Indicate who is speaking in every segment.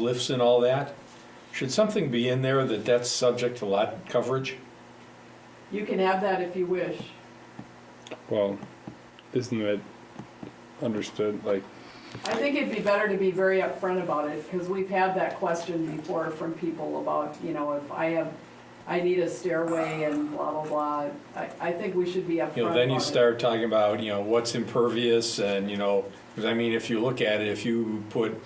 Speaker 1: lifts and all that, should something be in there that that's subject to lot coverage?
Speaker 2: You can have that if you wish.
Speaker 3: Well, isn't that understood? Like,
Speaker 2: I think it'd be better to be very upfront about it, because we've had that question before from people about, you know, if I have, I need a stairway and blah, blah, blah. I, I think we should be upfront.
Speaker 1: You know, then you
Speaker 2: about it.
Speaker 1: start talking about, you know, what's impervious and, you know, because I mean, if you look at it, if you put,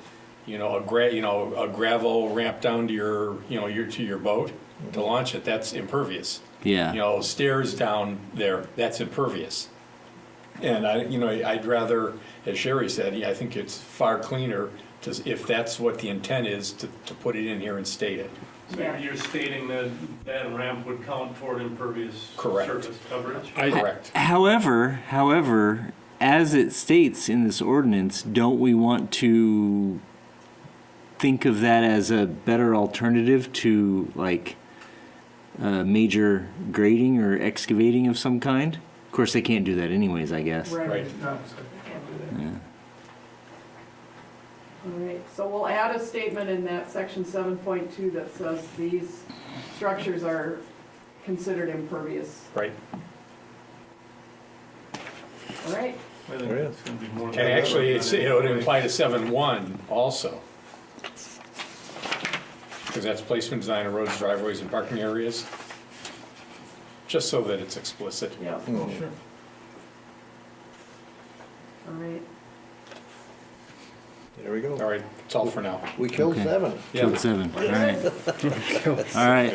Speaker 1: you know, a gra, you know, a gravel ramp down to your, you know, your, to your boat to launch it, that's impervious.
Speaker 4: Yeah.
Speaker 1: You know, stairs down there, that's impervious. And I, you know, I'd rather, as Sherry said, yeah, I think it's far cleaner to, if that's what the intent is, to, to put it in here and state it.
Speaker 5: So
Speaker 2: Yeah.
Speaker 5: You're stating that that ramp would count toward impervious
Speaker 1: Correct.
Speaker 5: surface coverage?
Speaker 3: I,
Speaker 1: Correct.
Speaker 4: However, however, as it states in this ordinance, don't we want to think of that as a better alternative to like uh, major grading or excavating of some kind? Of course, they can't do that anyways, I guess.
Speaker 2: Right.
Speaker 1: Right.
Speaker 2: All right, so we'll add a statement in that section seven point two that says these structures are considered impervious.
Speaker 1: Right.
Speaker 2: All right,
Speaker 5: I think it's gonna be more
Speaker 1: Oh,
Speaker 5: than
Speaker 1: And
Speaker 5: that.
Speaker 1: actually, it's, it would imply to seven one also. Because that's placement, design of roads, driveways, and parking areas. Just so that it's explicit.
Speaker 2: yeah, all
Speaker 6: Sure.
Speaker 2: right.
Speaker 6: There we
Speaker 1: All
Speaker 6: go.
Speaker 1: right, it's all for now.
Speaker 6: We killed
Speaker 4: Okay.
Speaker 6: seven.
Speaker 4: Two and
Speaker 1: Yeah.
Speaker 4: seven. All right. All right.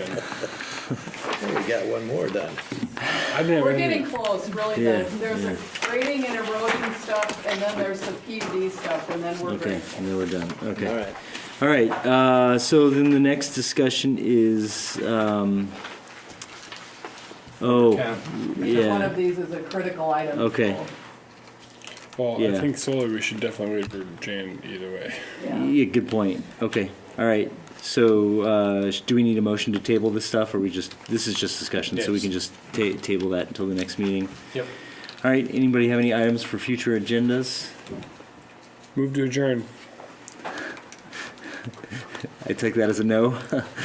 Speaker 6: Hey, We got one more done.
Speaker 3: I didn't have
Speaker 2: We're
Speaker 3: any-
Speaker 2: getting close, really,
Speaker 4: Yeah,
Speaker 2: the- there's the grading and erosion stuff, and then there's the PUD stuff, and then we're
Speaker 4: Okay.
Speaker 2: great.
Speaker 4: And then we're done. Okay.
Speaker 6: All right.
Speaker 4: All right, uh, so then the next discussion is, um, oh,
Speaker 1: Yeah.
Speaker 2: Each one of
Speaker 4: yeah,
Speaker 2: these is a critical item.
Speaker 4: Okay.
Speaker 2: so,
Speaker 3: well, I
Speaker 4: Yeah.
Speaker 3: think solar, we should definitely wait for Jan either way.
Speaker 2: yeah.
Speaker 4: yeah, good point, okay, all right. So, uh, sh- do we need a motion to table this stuff, or we just, this is just discussion, so we
Speaker 1: Yes.
Speaker 4: can just ta- table that until the next meeting?
Speaker 1: Yep.
Speaker 4: All right, anybody have any items for future agendas?
Speaker 3: Move to adjourn.
Speaker 4: I take that as a no.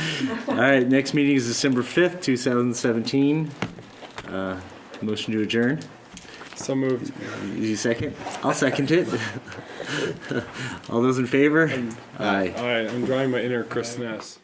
Speaker 4: All right, next meeting is December fifth, two thousand seventeen. Uh, motion to adjourn?
Speaker 3: So moved.
Speaker 4: You second? I'll second it. All those in favor? Aye.
Speaker 3: All right, I'm drawing my inner Chris Ness.